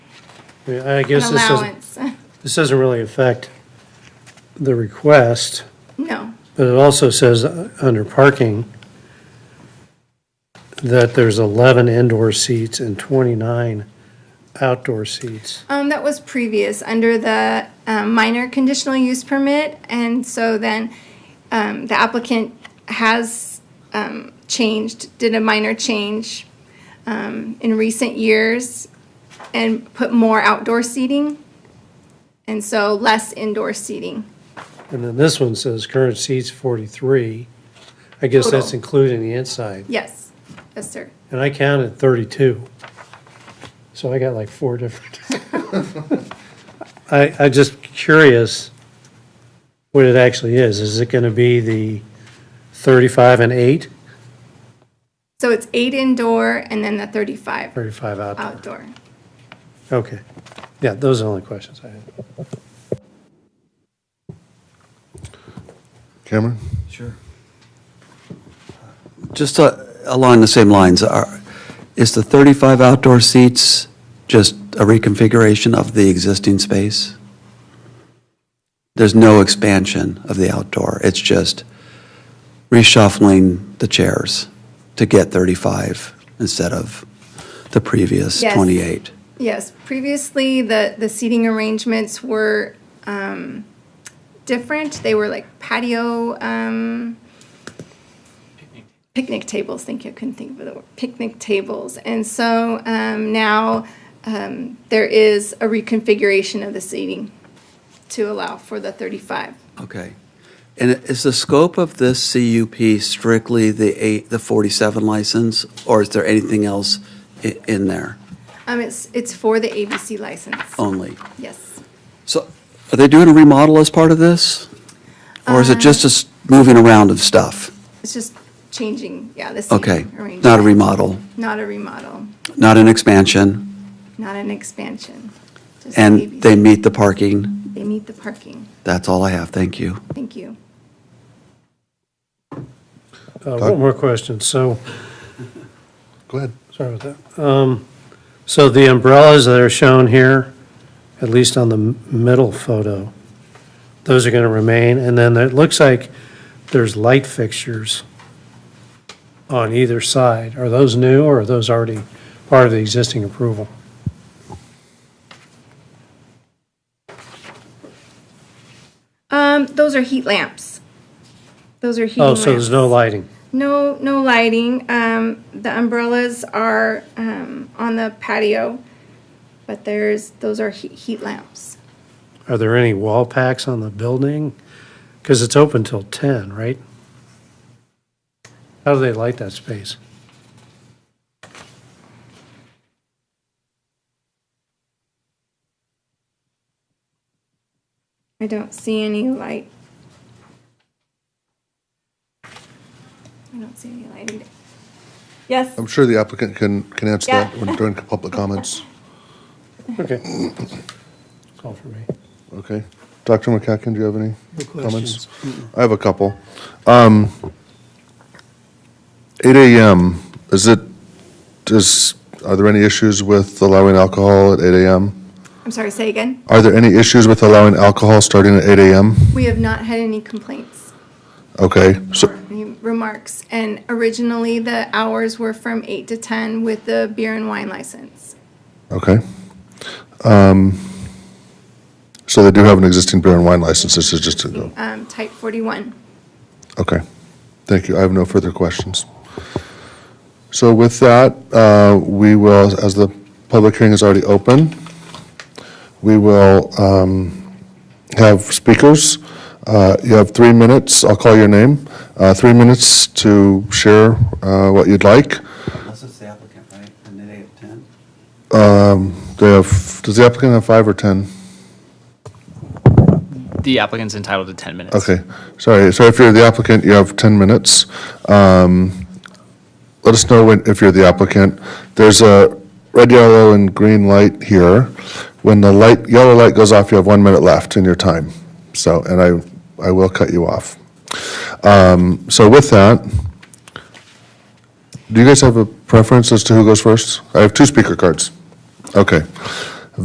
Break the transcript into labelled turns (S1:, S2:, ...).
S1: I mean, I
S2: an
S1: guess this doesn't,
S2: allowance.
S1: this doesn't really affect the request,
S2: No,
S1: but it also says, uh, under parking, that there's 11 indoor seats and 29 outdoor seats.
S2: um, that was previous, under the, um, minor conditional use permit, and so then, um, the applicant has, um, changed, did a minor change, um, in recent years, and put more outdoor seating, and so less indoor seating.
S1: And then this one says current seats 43. I guess that's
S2: Total.
S1: including the inside.
S2: Yes, yes, sir.
S1: And I counted 32. So I got like four different. I, I just curious what it actually is. Is it going to be the 35 and 8,
S2: So it's eight indoor and then the thirty-five
S1: 35 out?
S2: outdoor.
S1: Okay. Yeah, those are the only questions I had.
S3: Cameron?
S4: Sure. Just uh, along the same lines, are- is the 35 outdoor seats just a reconfiguration of the existing space? There's no expansion of the outdoor, it's just reshuffling the chairs to get 35 instead of the previous
S2: Yes.
S4: 28?
S2: Yes, previously, the, the seating arrangements were um, different. They were like patio, um, picnic tables, thank you, I couldn't think of the word, picnic tables. And so um, now um, there is a reconfiguration of the seating to allow for the 35.
S4: Okay. And is the scope of this CUP strictly the eight, the 47 license, or is there anything else i- in there
S2: Um, It's, it's for the ABC license,
S4: only?
S2: yes.
S4: So are they doing a remodel as part of this? Or is it just a s- moving around of stuff?
S2: It's just changing, yeah, the
S4: Okay.
S2: seating arrangement.
S4: Not a remodel,
S2: Not a remodel,
S4: not an expansion,
S2: not an expansion. just
S4: and
S2: ABC.
S4: they meet the parking?
S2: They need the parking.
S4: That's all I have, thank you.
S2: Thank you.
S1: Uh, One more question. So,
S3: Go ahead.
S1: sorry about that. Um, So the umbrellas that are shown here, at least on the m- middle photo, those are going to remain. And then it looks like there's light fixtures on either side. Are those new or are those already part of the existing approval?
S2: Um, those are heat lamps. Those are heat
S1: Oh,
S2: lamps.
S1: so there's no lighting?
S2: No, no lighting. Um, the umbrellas are um, on the patio, but there's those are he- heat lamps.
S1: Are there any wall packs on the building? Because it's open till 10, right? How do they light that space?
S2: I don't see any light. I don't see any lighting. Yes.
S3: I'm sure the applicant can, can answer
S2: Yeah.
S3: that when- during public comments.
S1: Okay. That's all for me.
S3: Okay. Dr. McCacken, do you have any comments? I have a couple. Um, Eight AM, is it, is, are there any issues with allowing alcohol at eight AM?
S2: I'm sorry. Say again.
S3: Are there any issues with allowing alcohol starting at eight AM?
S2: We have not had any complaints.
S3: Okay, so,
S2: Any remarks, and originally the hours were from eight to ten with the beer and wine license.
S3: okay. Um, So they do have an existing beer and wine license, this is just a,
S2: Um, type forty-one.
S3: Okay, thank you. I have no further questions. So with that, uh, we will, as the public hearing is already open, we will um, have speakers. Uh, You have three minutes, I'll call your name, Uh, three minutes to share uh, what you'd like.
S4: Unless it's the applicant, right, and they have 10?
S3: Do you have, does the applicant have five or 10?
S5: The applicant's entitled to 10 minutes.
S3: Okay, sorry, so if you're the applicant, you have 10 minutes. Um, Let us know when, if you're the applicant. There's a red, yellow, and green light here. When the light, yellow light goes off, you have one minute left in your time. So, and I, I will cut you off. Um, So with that, do you guys have a preference as to who goes first? I have two speaker cards. Okay.